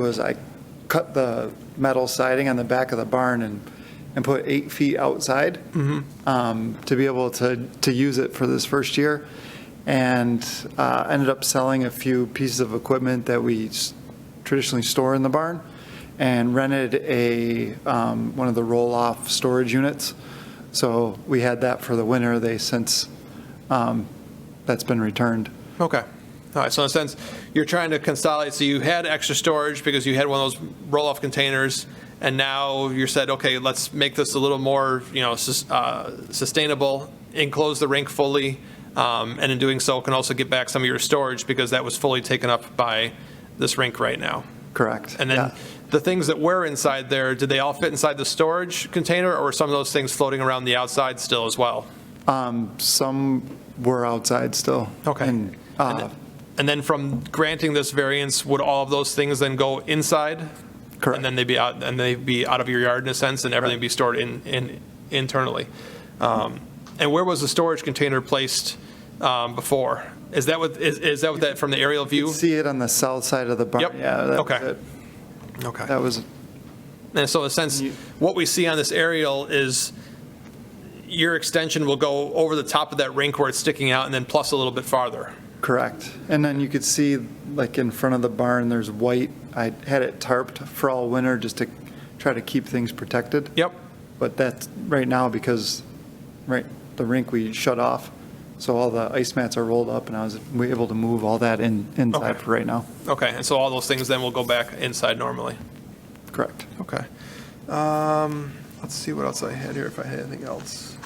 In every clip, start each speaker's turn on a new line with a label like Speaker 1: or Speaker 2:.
Speaker 1: was I cut the metal siding on the back of the barn and, and put eight feet outside
Speaker 2: Mm-hmm.
Speaker 1: um, to be able to, to use it for this first year. And uh, ended up selling a few pieces of equipment that we s- traditionally store in the barn and rented a, um, one of the roll-off storage units. So we had that for the winter. They since, um, that's been returned.
Speaker 2: Okay. All right, so in a sense, you're trying to consolidate, so you had extra storage because you had one of those roll-off containers, and now you said, okay, let's make this a little more, you know, sus- uh, sustainable, enclose the rink fully, um, and in doing so, can also get back some of your storage because that was fully taken up by this rink right now.
Speaker 1: Correct.
Speaker 2: And then
Speaker 1: Yeah.
Speaker 2: the things that were inside there, did they all fit inside the storage container, or were some of those things floating around the outside still as well?
Speaker 1: Some were outside still.
Speaker 2: Okay.
Speaker 1: And, uh,
Speaker 2: And then from granting this variance, would all of those things then go inside?
Speaker 1: Correct.
Speaker 2: And then they'd be out, and they'd be out of your yard in a sense, and everything be stored in, in, internally? Um, And where was the storage container placed um, before? Is that what, is, is that what that, from the aerial view?
Speaker 1: see it on the south side of the barn.
Speaker 2: Yep.
Speaker 1: Yeah, that was
Speaker 2: Okay.
Speaker 1: it.
Speaker 2: Okay.
Speaker 1: That was,
Speaker 2: And so in a sense, what we see on this aerial is your extension will go over the top of that rink where it's sticking out and then plus a little bit farther.
Speaker 1: correct. And then you could see, like, in front of the barn, there's white. I had it tarped for all winter just to try to keep things protected.
Speaker 2: Yep.
Speaker 1: But that's, right now, because, right, the rink we shut off, so all the ice mats are rolled up, and I was able to move all that in, inside
Speaker 2: Okay.
Speaker 1: for right now.
Speaker 2: Okay, and so all those things then will go back inside normally.
Speaker 1: Correct.
Speaker 2: Okay. Um, let's see what else I had here, if I had anything else.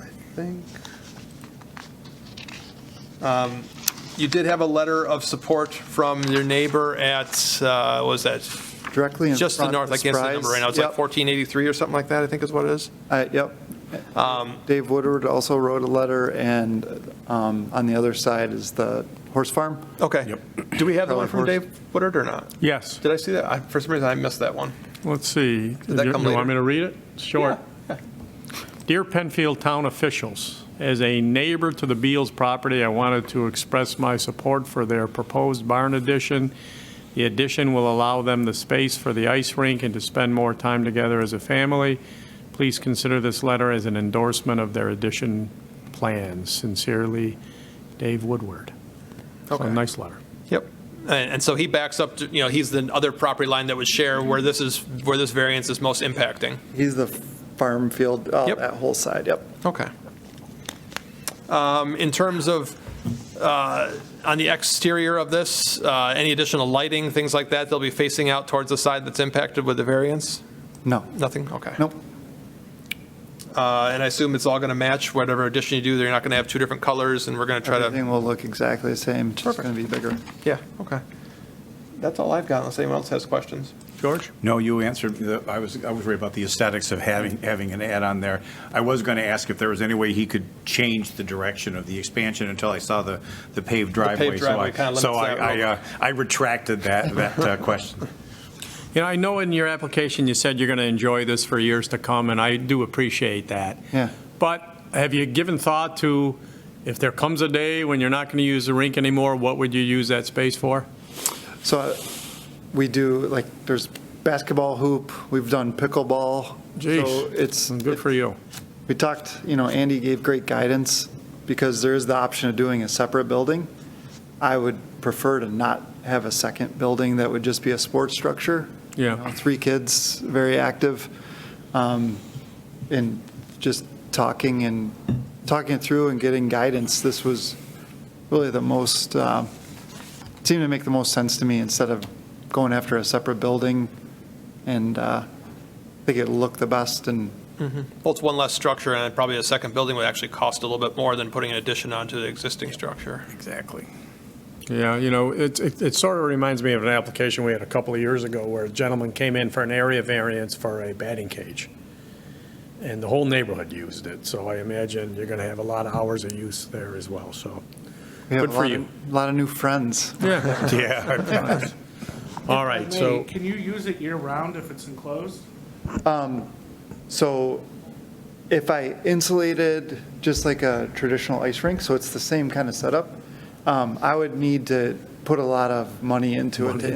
Speaker 2: I think. Um, You did have a letter of support from your neighbor at, uh, what was that?
Speaker 1: Directly in front of the
Speaker 2: Just to the north, I can't see the number right now, it's like
Speaker 1: Surprise.
Speaker 2: 1483 or something like that, I think is what it is.
Speaker 1: Uh, Yep.
Speaker 2: Um,
Speaker 1: Dave Woodward also wrote a letter, and um, on the other side is the horse farm.
Speaker 2: Okay. Do we have the one from
Speaker 1: Probably
Speaker 2: Dave Woodard or not?
Speaker 3: Yes,
Speaker 2: Did I see that? I- For some reason, I missed that one.
Speaker 3: let's see. Do
Speaker 2: that
Speaker 3: You
Speaker 2: come
Speaker 3: you
Speaker 2: later?
Speaker 3: want me to read it? Sure. Dear Penfield Town officials, as a neighbor to the Beals property, I wanted to express my support for their proposed barn addition. The addition will allow them the space for the ice rink and to spend more time together as a family. Please consider this letter as an endorsement of their addition plans. Sincerely, Dave Woodward. So,
Speaker 2: Okay.
Speaker 3: Nice letter.
Speaker 2: Yep. And, and so he backs up, to you know, he's the other property line that would share where this is, where this variance is most impacting.
Speaker 1: He's the farm field, oh,
Speaker 2: Yep.
Speaker 1: that whole side, yep.
Speaker 2: Okay. Um, In terms of, uh, on the exterior of this, uh, any additional lighting, things like that, they'll be facing out towards the side that's impacted with the variance?
Speaker 1: No,
Speaker 2: Nothing? Okay.
Speaker 1: nope,
Speaker 2: Uh, And I assume it's all going to match whatever addition you do, they're not going to have two different colors, and we're going to try to,
Speaker 1: everything will look exactly the same, just
Speaker 2: Perfect.
Speaker 1: going to be bigger.
Speaker 2: yeah, okay. That's all I've got, unless anyone else has questions.
Speaker 3: George?
Speaker 4: No, you answered, the- I was, I was worried about the aesthetics of having, having an add-on there. I was going to ask if there was any way he could change the direction of the expansion until I saw the, the paved driveway. so
Speaker 2: driveway
Speaker 4: I-
Speaker 2: kinda limits
Speaker 4: So I,
Speaker 2: that road.
Speaker 4: I, uh, I retracted that, that uh, question.
Speaker 3: You know, I know in your application, you said you're going to enjoy this for years to come, and I do appreciate that.
Speaker 1: Yeah.
Speaker 3: But have you given thought to, if there comes a day when you're not going to use the rink anymore, what would you use that space for?
Speaker 1: So uh, we do, like, there's basketball hoop, we've done pickleball.
Speaker 3: Jeez.
Speaker 1: So it's,
Speaker 3: Good for you.
Speaker 1: we talked, you know, Andy gave great guidance, because there is the option of doing a separate building. I would prefer to not have a second building that would just be a sports structure.
Speaker 3: Yeah.
Speaker 1: You know, Three kids, very active, um, and just talking and, talking it through and getting guidance, this was really the most, um, it seemed to make the most sense to me, instead of going after a separate building, and uh, I think it'll look the best, and
Speaker 2: Well, it's one less structure, and probably a second building would actually cost a little bit more than putting an addition onto the existing structure.
Speaker 4: Exactly.
Speaker 3: Yeah, you know, it, it, it sort of reminds me of an application we had a couple of years ago where a gentleman came in for an area variance for a batting cage. And the whole neighborhood used it, so I imagine you're going to have a lot of hours of use there as well, so.
Speaker 1: we have
Speaker 3: Good
Speaker 1: a
Speaker 3: for
Speaker 1: lot
Speaker 3: you.
Speaker 1: of- lot of new friends.
Speaker 3: Yeah.
Speaker 4: Yeah.
Speaker 3: All right,
Speaker 5: May,
Speaker 3: so.
Speaker 5: Can you use it year-round if it's enclosed?
Speaker 1: So if I insulated just like a traditional ice rink, so it's the same kind of setup, um, I would need to put a lot of money into it to